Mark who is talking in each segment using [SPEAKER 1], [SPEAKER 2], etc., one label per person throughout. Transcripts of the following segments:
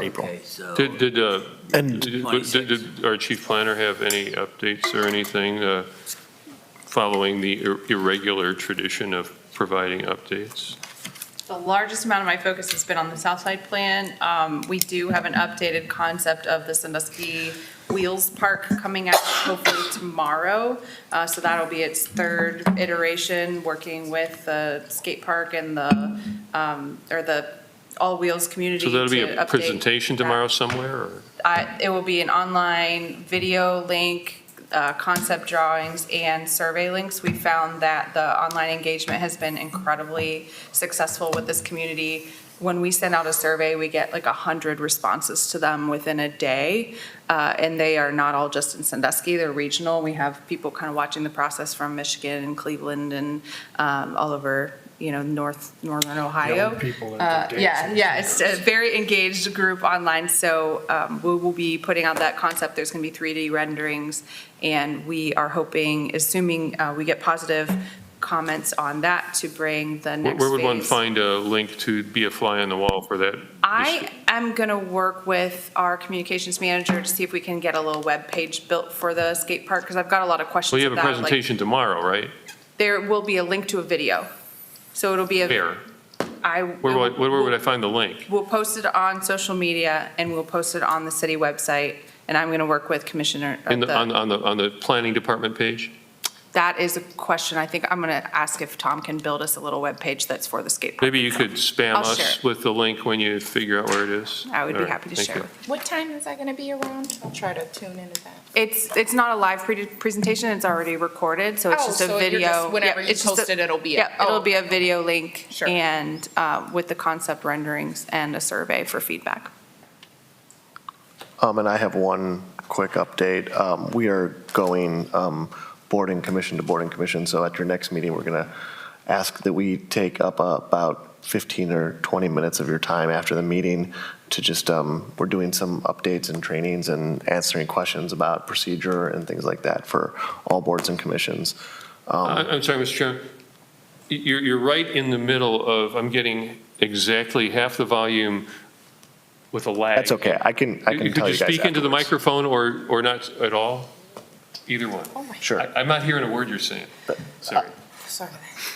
[SPEAKER 1] April.
[SPEAKER 2] Okay, so,
[SPEAKER 3] Did, did, uh,
[SPEAKER 1] And
[SPEAKER 3] did- did did our chief planner have any updates or anything uh, following the ir- irregular tradition of providing updates?
[SPEAKER 4] The largest amount of my focus has been on the South Side Plan. Um, We do have an updated concept of the Sandusky Wheels Park coming out hopefully tomorrow. Uh, So that'll be its third iteration, working with the skate park and the, um, or the All Wheels community
[SPEAKER 3] So that'll be
[SPEAKER 4] to
[SPEAKER 3] a
[SPEAKER 4] update
[SPEAKER 3] presentation
[SPEAKER 4] that.
[SPEAKER 3] tomorrow somewhere, or?
[SPEAKER 4] I- It will be an online video link, uh, concept drawings, and survey links. We found that the online engagement has been incredibly successful with this community. When we send out a survey, we get like 100 responses to them within a day, uh, and they are not all just in Sandusky, they're regional. We have people kind of watching the process from Michigan and Cleveland and um, all over, you know, north, northern Ohio.
[SPEAKER 5] people at
[SPEAKER 4] Uh,
[SPEAKER 5] the
[SPEAKER 4] Yeah,
[SPEAKER 5] dances
[SPEAKER 4] yeah,
[SPEAKER 5] and
[SPEAKER 4] it's a very engaged group online, so um, we will be putting out that concept. There's going to be 3D renderings, and we are hoping, assuming uh, we get positive comments on that, to bring the
[SPEAKER 3] Where
[SPEAKER 4] next
[SPEAKER 3] where would one
[SPEAKER 4] phase.
[SPEAKER 3] find a link to be a fly on the wall for that?
[SPEAKER 4] I am going to work with our communications manager to see if we can get a little web page built for the skate park, because I've got a lot of questions
[SPEAKER 3] Well, you have a
[SPEAKER 4] about, like,
[SPEAKER 3] presentation tomorrow, right?
[SPEAKER 4] There will be a link to a video, so it'll be a.
[SPEAKER 3] Here.
[SPEAKER 4] I.
[SPEAKER 3] Where would, I- where would I find the link?
[SPEAKER 4] We'll post it on social media and we'll post it on the city website. And I'm going to work with Commissioner. or
[SPEAKER 3] In the,
[SPEAKER 4] the-
[SPEAKER 3] on, on the, on the planning department page?
[SPEAKER 4] That is a question I think I'm going to ask if Tom can build us a little webpage that's for the skate park.
[SPEAKER 3] Maybe you could spam
[SPEAKER 4] I'll share
[SPEAKER 3] us
[SPEAKER 4] it.
[SPEAKER 3] with the link when you figure out where it is.
[SPEAKER 4] I would
[SPEAKER 3] All
[SPEAKER 4] be
[SPEAKER 3] right,
[SPEAKER 4] happy to
[SPEAKER 3] thank
[SPEAKER 4] share
[SPEAKER 3] you.
[SPEAKER 4] with.
[SPEAKER 6] What time is that going to be around? I'll try to tune into that.
[SPEAKER 4] It's, it's not a live pre- presentation, it's already recorded, so it's
[SPEAKER 6] Oh,
[SPEAKER 4] just a
[SPEAKER 6] so you're just-
[SPEAKER 4] video. Yep,
[SPEAKER 6] whenever you
[SPEAKER 4] it's just a-
[SPEAKER 6] post it, it'll be
[SPEAKER 4] Yep,
[SPEAKER 6] up.
[SPEAKER 4] it'll
[SPEAKER 6] Oh,
[SPEAKER 4] be a video link.
[SPEAKER 6] Sure.
[SPEAKER 4] And uh, with the concept renderings and a survey for feedback.
[SPEAKER 1] Um, and I have one quick update. Um, we are going, um, boarding commission to boarding commission, so at your next meeting, we're gonna ask that we take up uh, about fifteen or twenty minutes of your time after the meeting to just, um, we're doing some updates and trainings and answering questions about procedure and things like that for all boards and commissions. Um,
[SPEAKER 3] I- Uh, I'm sorry, Mr. Chairman. Y- You're, you're right in the middle of, I'm getting exactly half the volume with a lag.
[SPEAKER 1] That's okay, I can, I can tell you guys
[SPEAKER 3] Could you speak into the
[SPEAKER 1] afterwards.
[SPEAKER 3] microphone or, or not at all? Either one.
[SPEAKER 6] Oh, my,
[SPEAKER 1] Sure,
[SPEAKER 3] I- I'm not hearing a word you're saying. Sorry.
[SPEAKER 6] sorry.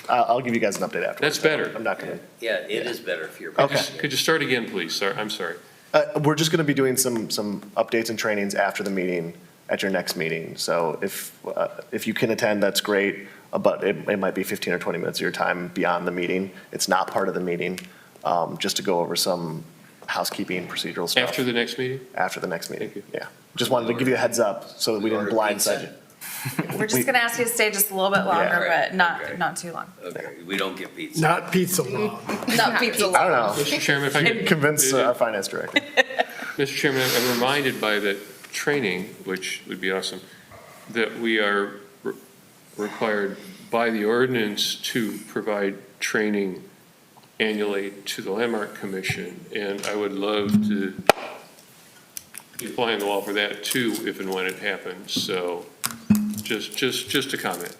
[SPEAKER 1] I'll, I'll give you guys an update afterwards.
[SPEAKER 3] That's better.
[SPEAKER 1] I'm not gonna
[SPEAKER 2] yeah, it is better if you're.
[SPEAKER 1] Okay.
[SPEAKER 3] Just- Could you start again, please? Sorry, I'm sorry.
[SPEAKER 1] Uh, we're just going to be doing some, some updates and trainings after the meeting, at your next meeting. So if, uh, if you can attend, that's great, uh, but it, it might be 15 or 20 minutes of your time beyond the meeting. It's not part of the meeting, um, just to go over some housekeeping procedural stuff.
[SPEAKER 3] After the next meeting?
[SPEAKER 1] After the next meeting,
[SPEAKER 3] Thank you.
[SPEAKER 1] yeah. Just wanted to give you a heads up so that we didn't
[SPEAKER 2] Order pizza.
[SPEAKER 1] blindside you.
[SPEAKER 4] We're just going to ask you to stay just a little bit longer,
[SPEAKER 2] Right,
[SPEAKER 4] but not,
[SPEAKER 2] okay.
[SPEAKER 4] not too long.
[SPEAKER 2] Okay, we don't get pizza.
[SPEAKER 5] Not pizza long.
[SPEAKER 4] Not pizza.
[SPEAKER 1] I don't know,
[SPEAKER 3] Mr. Chairman, if I could.
[SPEAKER 1] convince uh, our finance director.
[SPEAKER 3] Mr. Chairman, I'm reminded by that training, which would be awesome, that we are re- required by the ordinance to provide training annually to the Landmark Commission, and I would love to be flying the wall for that too, if and when it happens, so just, just, just a comment.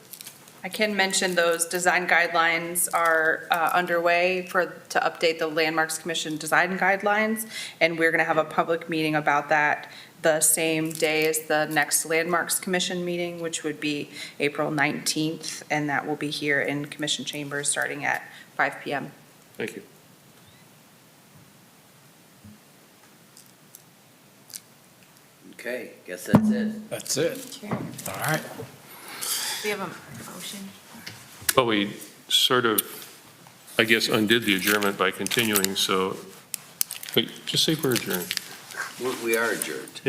[SPEAKER 4] I can mention those design guidelines are uh, underway for, to update the Landmarks Commission design guidelines, and we're going to have a public meeting about that the same day as the next Landmarks Commission meeting, which would be April 19th, and that will be here in Commission Chambers, starting at 5 PM.
[SPEAKER 3] Thank you.
[SPEAKER 2] Okay, guess that's it.
[SPEAKER 5] That's it. All right.
[SPEAKER 6] We have a motion.
[SPEAKER 3] Well, we sort of, I guess, undid the adjournment by continuing, so, wait, just say we're adjourned.
[SPEAKER 2] We- We are adjourned.